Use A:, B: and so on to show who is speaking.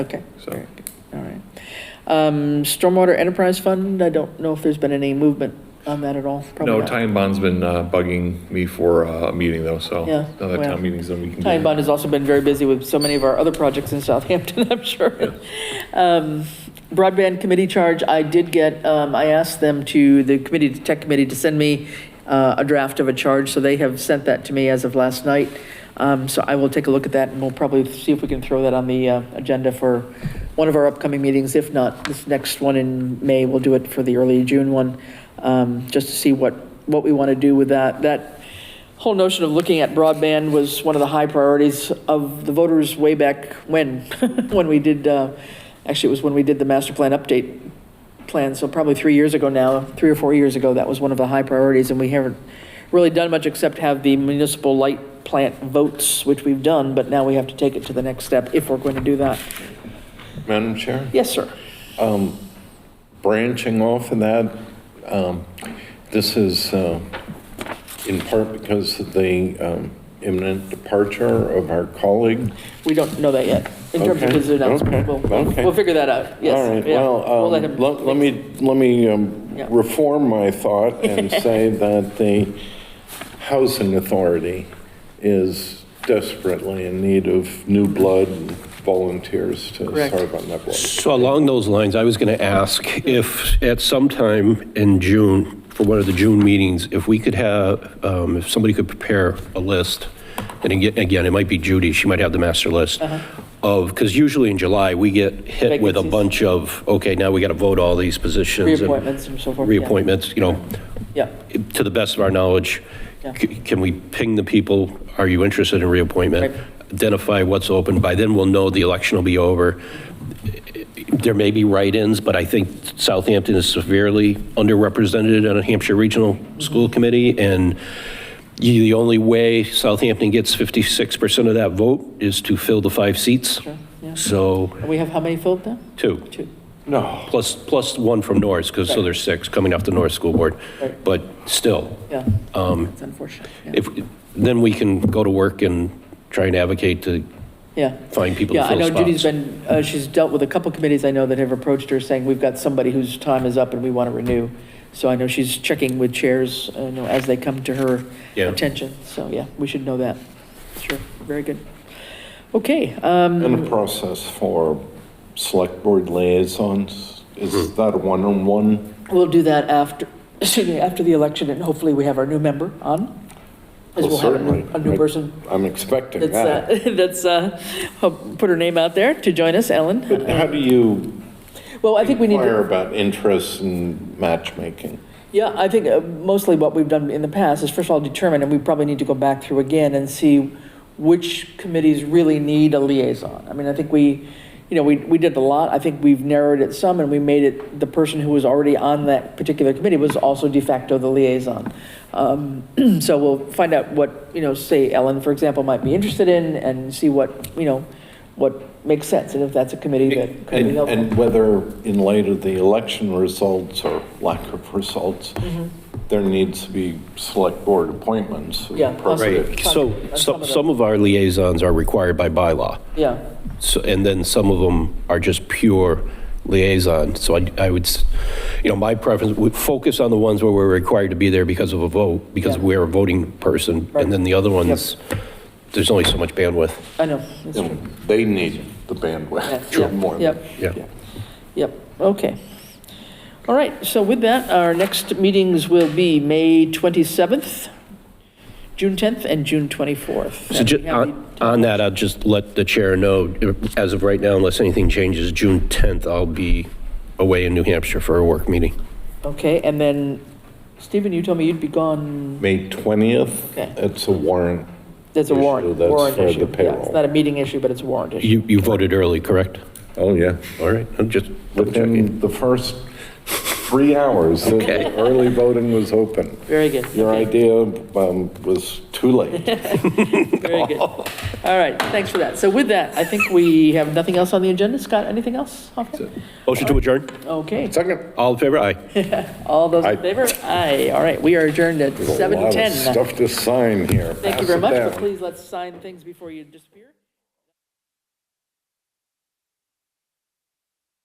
A: Okay,
B: So-
A: very good. all right. Um, Stormwater Enterprise Fund, I don't know if there's been any movement on that at all. Probably
B: No,
A: not.
B: Time Bond's been uh, bugging me for uh, a meeting though, so
A: Yeah,
B: now that
A: well,
B: town meeting's done, we can.
A: Time
B: get-
A: Bond has also been very busy with so many of our other projects in Southampton, I'm sure. Um, Broadband committee charge, I did get, um, I asked them to, the committee, the tech committee, to send me uh, a draft of a charge, so they have sent that to me as of last night. Um, So I will take a look at that, and we'll probably see if we can throw that on the uh, agenda for one of our upcoming meetings. If not, this next one in May, we'll do it for the early June one, um, just to see what, what we want to do with that. That whole notion of looking at broadband was one of the high priorities of the voters way back when, when we did, uh, actually, it was when we did the master plan update plan, so probably three years ago now, three or four years ago, that was one of the high priorities, and we haven't really done much except have the municipal light plant votes, which we've done, but now we have to take it to the next step if we're going to do that.
C: Madam Chair,
A: Yes, sir.
C: branching off of that, um, this is uh, in part because of the um, imminent departure of our colleague.
A: We don't know that yet, in terms of
C: Okay,
A: his announcement.
C: okay,
A: We'll, we'll
C: okay.
A: we'll figure that out, yes.
C: All right,
A: yeah. We'll
C: well,
A: let
C: um,
A: him-
C: let let me, let me um,
A: Yeah.
C: reform my thought and say that the Housing Authority is desperately in need of new blood and volunteers to
A: Correct.
C: serve on that board.
D: So along those lines, I was going to ask if at some time in June, for one of the June meetings, if we could have, um, if somebody could prepare a list, and again, again, it might be Judy, she might have the master list of, because usually in July, we get hit with a
A: Uh-huh. Vacancies.
D: bunch of, okay, now we got to vote all these positions. and
A: Reappointments and so forth. yeah.
D: Reappointments, you know,
A: Yeah.
D: to the best of our knowledge,
A: Yeah.
D: c- can we ping the people, are you interested in reappointment?
A: Right.
D: Identify what's open, by then we'll know the election will be over. There may be write-ins, but I think Southampton is severely underrepresented on a Hampshire Regional School Committee, and you- the only way Southampton gets 56% of that vote is to fill the five seats.
A: yeah.
D: So,
A: And we have how many filled now?
D: two
A: Two.
C: No,
D: plus, plus one from Norris, because, so
A: Right.
D: there's six coming off the Norris School Board.
A: Right.
D: But still, um,
A: Yeah. That's unfortunate. yeah.
D: if, then we can go to work and try and advocate to
A: Yeah.
D: find people to
A: Yeah, I
D: fill
A: know
D: spots.
A: Judy's been, uh, she's dealt with a couple committees I know that have approached her saying, we've got somebody whose time is up and we want to renew. So I know she's checking with chairs, uh, you know, as they come to her
D: Yeah.
A: attention. So, yeah, we should know that. Sure, very good. Okay, um,
C: And the process for select board liaisons,
D: Hmm.
C: is that a one-on-one?
A: we'll do that after, excuse me, after the election and hopefully we have our new member on. As
C: Well,
A: we'll have a new,
C: certainly.
A: a new
C: Right.
A: person
C: I'm expecting
A: that's,
C: that.
A: uh, that's, uh, hope- put her name out there to join us, Ellen.
C: But how do you
A: Well, I think we need to.
C: inquire about interests and matchmaking?
A: Yeah, I think uh, mostly what we've done in the past is first of all determine, and we probably need to go back through again and see which committees really need a liaison. I mean, I think we, you know, we, we did a lot. I think we've narrowed it some and we made it, the person who was already on that particular committee was also de facto the liaison. Um, So we'll find out what, you know, say Ellen, for example, might be interested in and see what, you know, what makes sense and if that's a committee that could be
C: And,
A: helpful.
C: and whether in light of the election results or lack of results,
A: Mm-hmm.
C: there needs to be select board appointments. of
A: Yeah,
C: appropriate-
D: Right,
A: Some-
D: so,
A: and some
D: so
A: of
D: some of our liaisons are required by bylaw,
A: Yeah.
D: so, and then some of them are just pure liaison. So I, I would, s- you know, my preference, would focus on the ones where we're required to be there because of a vote, because
A: Yeah.
D: we're a voting person,
A: Right.
D: and then the other ones, there's only so much bandwidth.
A: I know, that's
C: You
A: true.
C: know, They need the
A: Yeah,
C: bandwidth.
A: yeah,
C: more than-
A: Yep.
D: Yeah.
A: Yep, okay. All right, so with that, our next meetings will be May 27th, June 10th, and June 24th.
D: So ju-
A: And we have
C: uh,
D: on on that, I'll just let the chair know, uh, as of right now, unless anything changes, June 10th, I'll be away in New Hampshire for a work meeting.
A: the- Okay, and then, Stephen, you told me you'd be gone,
C: May 20th,
A: Okay.
C: it's a warrant.
A: that's a
C: Issue,
A: warrant,
C: that's
A: warrant
C: for the
A: issue. Yeah, It's
C: payroll.
A: not a meeting issue, but it's a warrant issue.
D: You, you voted early, correct?
C: Oh, yeah.
D: All right, I'm just double checking.
C: Within the first three hours, the- the early voting was open.
A: Very good.
C: Your
A: okay,
C: idea um, was too late.
A: Very good. All right, thanks for that. So with that, I think we have nothing else on the agenda. Scott, anything else? Okay.
D: Motion to adjourn?
A: Okay,
C: Second.
D: All in favor? Aye.
A: all those
C: I-
A: in favor? Aye, all right, we are adjourned at
C: A lot of
A: 7:10.
C: stuff to sign here.
A: Thank
C: Pass
A: you
C: it
A: very much, but
C: down.
A: please let's sign things before you disappear.